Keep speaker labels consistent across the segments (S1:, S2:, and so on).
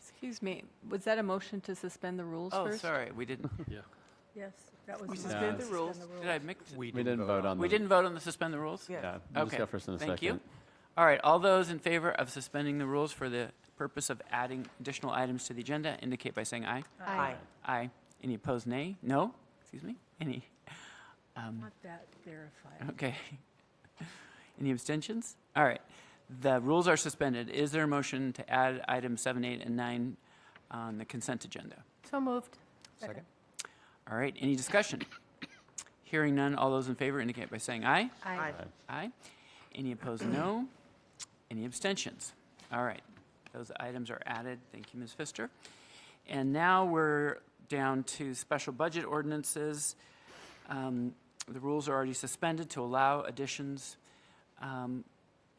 S1: Excuse me, was that a motion to suspend the rules
S2: Oh,
S1: first?
S2: sorry, we didn't,
S3: Yes, that was.
S2: we
S3: the
S2: suspended the
S3: motion.
S2: rules.
S3: Suspend
S2: Did I mix?
S4: We
S5: We
S4: didn't
S5: didn't vote on
S2: We
S5: the
S2: didn't vote on the suspend the rules?
S3: Yeah.
S4: Yeah, we'll
S2: Okay,
S4: discuss first and a second.
S2: Thank you. All right, all those in favor of suspending the rules for the purpose of adding additional items to the agenda indicate by saying aye.
S3: Uh,
S1: Aye.
S2: Aye. Any opposed, nay? No? Excuse me? Any? Um,
S3: Want that verified.
S2: Okay. Any abstentions? All right. The rules are suspended. Is there a motion to add items seven, eight, and nine on the consent agenda?
S1: So moved.
S5: second.
S2: All right, any discussion? Hearing none, all those in favor indicate by saying aye.
S1: Aye.
S2: Aye. Any opposed, no. Any abstentions? All right, those items are added. Thank you, Ms. Pfister. And now we're down to special budget ordinances. Um, The rules are already suspended to allow additions. Um,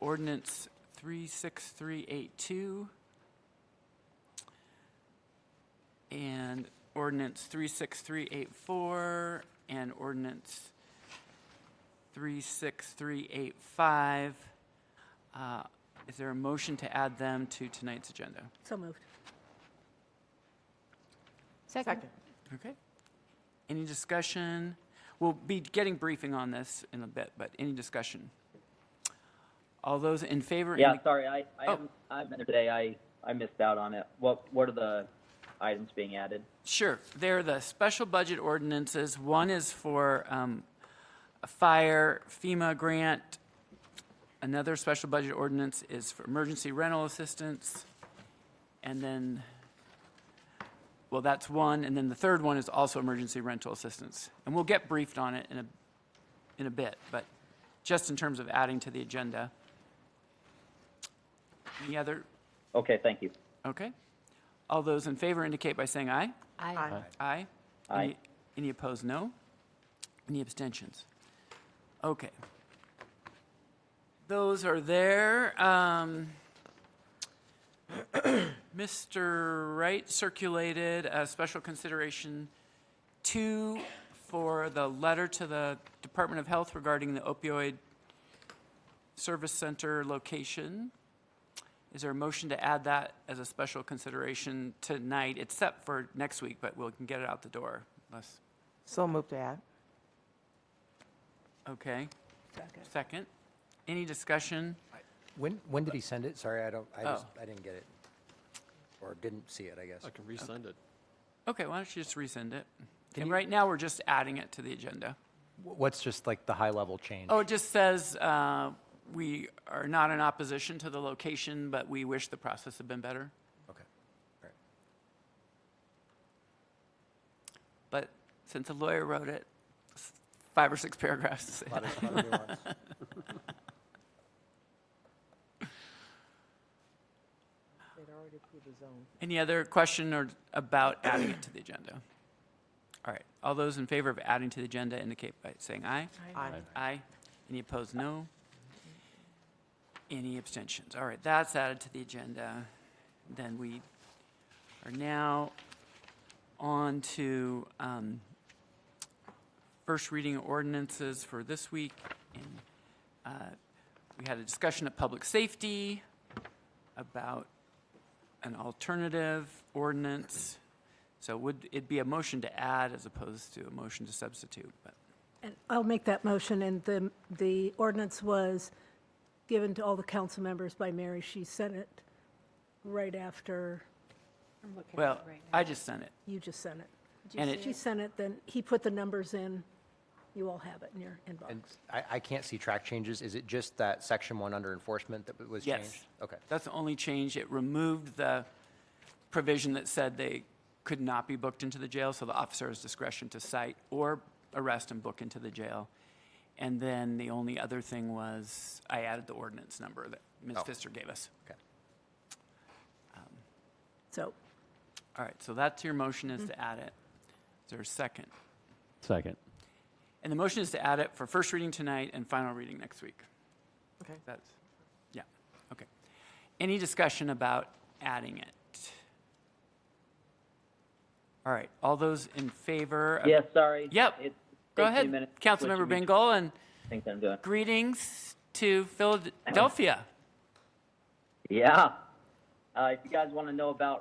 S2: Ordinance 36382 and ordinance 36384 and ordinance 36385. Uh, Is there a motion to add them to tonight's agenda?
S3: So moved.
S1: Second.
S2: Okay. Any discussion? We'll be getting briefing on this in a bit, but any discussion? All those in favor?
S6: Yeah,
S2: indi-
S6: sorry, I, I
S2: Oh.
S6: haven't, I haven't been there today, I, I missed out on it. What, what are the items being added?
S2: Sure. They're the special budget ordinances. One is for um, a fire FEMA grant. Another special budget ordinance is for emergency rental assistance. And then, well, that's one. And then the third one is also emergency rental assistance. And we'll get briefed on it in a, in a bit, but just in terms of adding to the agenda. Any other,
S6: Okay, thank you.
S2: okay? All those in favor indicate by saying aye.
S1: Aye.
S2: Aye.
S6: Aye.
S2: Any- Any opposed, no? Any abstentions? Okay. Those are there. Um, Mr. Wright circulated a special consideration two for the letter to the Department of Health regarding the opioid service center location. Is there a motion to add that as a special consideration tonight, except for next week, but we can get it out the door unless,
S7: So moved to add.
S2: okay.
S3: Second.
S2: Second, any discussion?
S5: When, when did he send it? Sorry, I don't, I just,
S2: Oh.
S5: I didn't get it. Or didn't see it, I guess.
S4: I can resend it.
S2: Okay, why don't you just resend it?
S5: Can
S2: And
S5: you-
S2: right now, we're just adding it to the agenda.
S5: Wh- What's just like the high-level change?
S2: Oh, it just says, uh, we are not in opposition to the location, but we wish the process had been better.
S5: Okay. All right.
S2: But since a lawyer wrote it, s- five or six paragraphs.
S5: Lot of- lot of nuance.
S7: They'd already approved the zone.
S2: Any other question or about adding it to the agenda? All right, all those in favor of adding to the agenda indicate by saying aye.
S7: Aye.
S2: Aye. Any opposed, no. Any abstentions? All right, that's added to the agenda. Then we are now on to um, first reading ordinances for this week. And uh, We had a discussion of public safety about an alternative ordinance. So would it be a motion to add as opposed to a motion to substitute? But
S3: And I'll make that motion, and the, the ordinance was given to all the council members by Mary. She sent it right after
S2: Well, I just sent it.
S3: you just sent it.
S2: And it,
S3: She sent it, then he put the numbers in. You all have it in your inbox.
S5: And I, I can't see track changes. Is it just that section one under enforcement that was changed?
S2: yes.
S5: Okay.
S2: That's the only change. It removed the provision that said they could not be booked into the jail, so the officer has discretion to cite or arrest and book into the jail. And then the only other thing was I added the ordinance number that Ms.
S5: Oh.
S2: Pfister gave us.
S5: Okay.
S3: So
S2: All right, so that's your motion is to add it. Is there a second?
S4: Second.
S2: And the motion is to add it for first reading tonight and final reading next week.
S7: Okay.
S2: That's, yeah, okay. Any discussion about adding it? All right, all those in favor? of-
S6: Yes, sorry.
S2: Uh, Yep.
S6: It
S2: Go
S6: takes me a
S2: ahead,
S6: minute to switch
S2: Councilmember
S6: between
S2: Bingle, and
S6: Things I'm doing.
S2: greetings to Philadelphia.
S6: Yeah. Uh, if you guys want to know about